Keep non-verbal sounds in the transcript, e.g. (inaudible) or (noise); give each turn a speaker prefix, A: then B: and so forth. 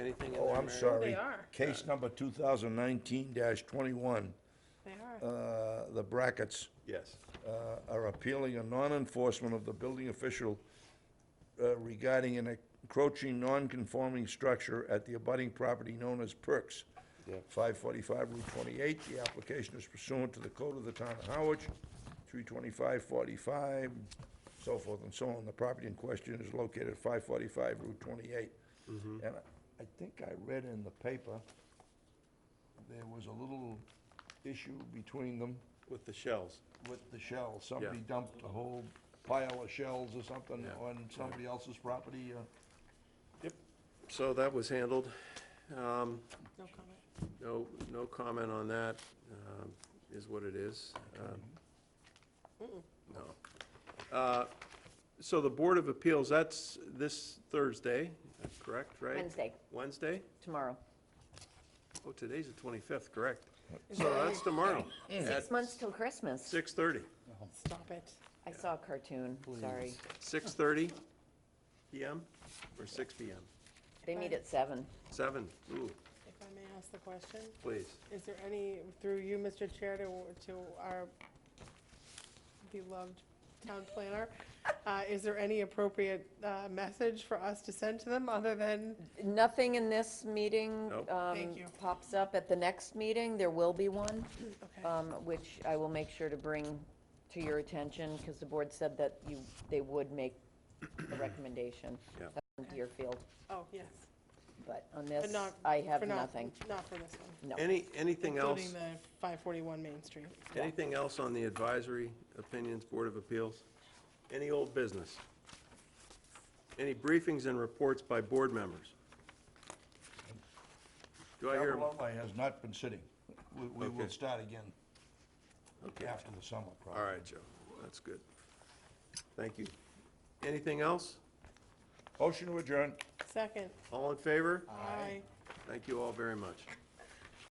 A: Oh, I'm sorry.
B: They are.
A: Case number 2019-21,
B: They
A: uh,
B: are.
A: the brackets
C: Yes.
A: uh, are appealing a non-enforcement of the building official uh, regarding an encroaching non-conforming structure at the abutting property known as Perks.
C: Yep.
A: 545 Route 28, the application is pursuant to the code of the town of Howard, 32545, so forth and so on. The property in question is located at 545 Route 28. And I- I think I read in the paper, there was a little issue between them
C: With the shells.
A: with the shell. Somebody dumped a whole pile of shells or something
C: Yeah,
A: on somebody else's property. uh,
C: Yep. So that was handled. Um,
B: No comment.
C: No, no comment on that, um, is what it is. Um, No. Uh, So the Board of Appeals, that's this Thursday, correct, right?
D: Wednesday.
C: Wednesday?
D: tomorrow.
C: Oh, today's the 25th, correct. So that's tomorrow at
D: Six months till Christmas.
C: 6:30.
B: Stop it.
D: I saw a cartoon, sorry.
C: 6:30 PM or 6 PM?
D: They meet at seven.
C: 7, ooh,
B: If I may ask the question,
C: please.
B: is there any, through you, Mr. Chair, to, to our beloved town
D: (laughs)
B: planner, uh, is there any appropriate, uh, message for us to send to them other than,
D: Nothing in this meeting
C: Nope.
D: um,
B: Thank you.
D: pops up at the next meeting. There will be one,
B: okay,
D: um, which I will make sure to bring to your attention because the board said that you, they would make a recommendation.
C: Yeah.
D: on Deerfield,
B: oh, yes.
D: but on
B: But
D: this,
B: not-
D: I
B: for
D: have
B: not-
D: nothing.
B: Not for this one.
D: No.
C: Any, anything else?
B: Including the five forty-one Main Street.
C: Anything else on the advisory opinions, Board of Appeals? Any old business? Any briefings and reports by board members? Do I hear,
A: Capilano has not been sitting. We- We will
C: Okay.
A: start again
C: Okay.
A: after the summer, probably.
C: all right, Joe, that's good. Thank you. Anything else?
A: Motion to adjourn.
B: Second,
C: All in favor?
B: aye.
C: Thank you all very much.